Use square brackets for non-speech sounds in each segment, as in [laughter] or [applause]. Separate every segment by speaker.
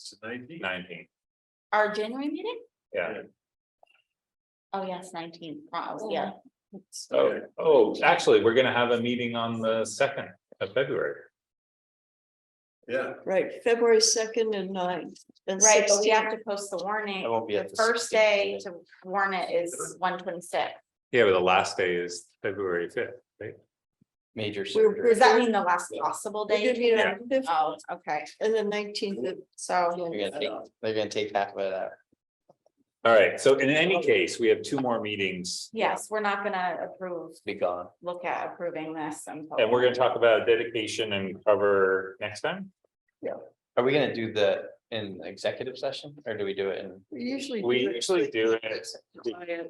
Speaker 1: It's nineteen.
Speaker 2: Nineteen,
Speaker 3: Our January meeting?
Speaker 2: yeah.
Speaker 3: Oh, yes, nineteen, yeah.
Speaker 4: yeah.
Speaker 2: Oh, oh, actually, we're gonna have a meeting on the second of February.
Speaker 1: Yeah,
Speaker 4: Right, February second and nine. and
Speaker 3: Right, but we
Speaker 4: 16.
Speaker 3: have to post the warning.
Speaker 5: I won't be at
Speaker 3: The
Speaker 5: the
Speaker 3: first
Speaker 5: 16th.
Speaker 3: day to warn it is one twenty-six.
Speaker 2: Yeah, but the last day is February fifth.
Speaker 5: Major
Speaker 4: We're-
Speaker 5: surgery.
Speaker 3: Does that mean the last possible
Speaker 4: We're gonna
Speaker 3: day?
Speaker 4: meet on the 5th
Speaker 3: Oh, okay,
Speaker 4: And the nineteenth.
Speaker 3: so,
Speaker 5: They're gonna take, they're gonna take half of it out.
Speaker 2: All right, so in any case, we have two more meetings
Speaker 3: yes, we're not gonna approve,
Speaker 5: Be gone.
Speaker 3: look at approving this until.
Speaker 2: and we're gonna talk about dedication and cover next time.
Speaker 5: Are we gonna do the in executive session or do we do it in?
Speaker 4: We usually. do
Speaker 2: We
Speaker 4: it.
Speaker 2: usually do it,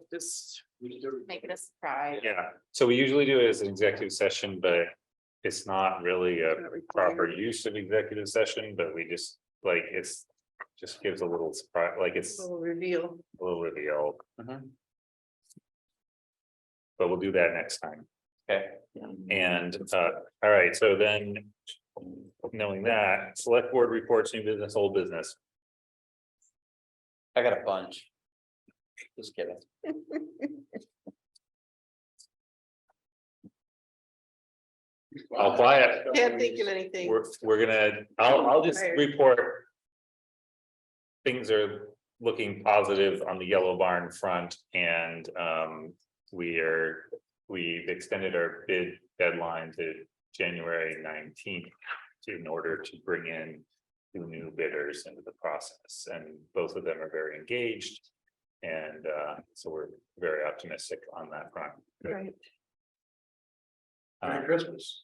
Speaker 3: Make it a surprise.
Speaker 2: yeah, so we usually do it as an executive session, but it's not really a proper use of executive session, but we just, like, it's just gives a little surprise, like, it's a
Speaker 4: Little Reveal.
Speaker 2: little reveal,
Speaker 5: Mhm.
Speaker 2: but we'll do that next time.
Speaker 5: Okay,
Speaker 2: And, uh, all right, so then. Knowing that, select board reports, new business, old business.
Speaker 5: I got a bunch. Just kidding.
Speaker 2: All quiet.
Speaker 4: Can't think of anything.
Speaker 2: We're, we're gonna, I'll, I'll just
Speaker 4: Tired.
Speaker 2: report. Things are looking positive on the yellow barn front and, um, we are, we've extended our bid deadline to January nineteenth. In order to bring in two new bidders into the process and both of them are very engaged. And, uh, so we're very optimistic on that front. Um,
Speaker 4: Right.
Speaker 1: Merry Christmas.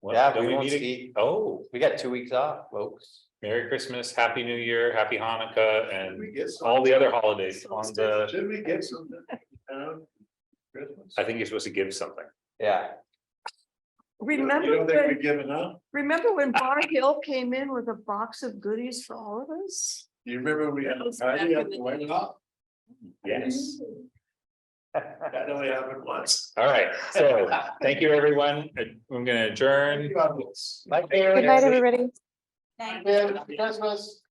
Speaker 2: Well,
Speaker 5: Yeah,
Speaker 2: don't
Speaker 5: we
Speaker 2: we
Speaker 5: won't
Speaker 2: need a-
Speaker 5: see.
Speaker 2: Oh.
Speaker 5: We got two weeks off, folks.
Speaker 2: Merry Christmas, Happy New Year, Happy Hanukkah,
Speaker 1: Did we
Speaker 2: and
Speaker 1: get some-
Speaker 2: all the other holidays on the,
Speaker 1: Did we get something? um, Christmas?
Speaker 2: I think you're supposed to give something.
Speaker 5: Yeah,
Speaker 1: You
Speaker 4: Remember
Speaker 1: don't think
Speaker 4: when,
Speaker 1: we've given up?
Speaker 4: remember when Bar Hill came in with a box of goodies for all of us?
Speaker 1: Do You remember we had a
Speaker 4: was
Speaker 1: party
Speaker 4: back
Speaker 1: at
Speaker 4: in
Speaker 1: the
Speaker 4: the
Speaker 1: White House?
Speaker 2: Yes.
Speaker 1: That only happened once. [laughs]
Speaker 2: All right, so, thank you, everyone. I'm gonna adjourn.
Speaker 1: Thank you, Alex.
Speaker 5: Bye.
Speaker 2: Merry
Speaker 6: Good night, everybody.
Speaker 3: Thank
Speaker 1: Merry Christmas.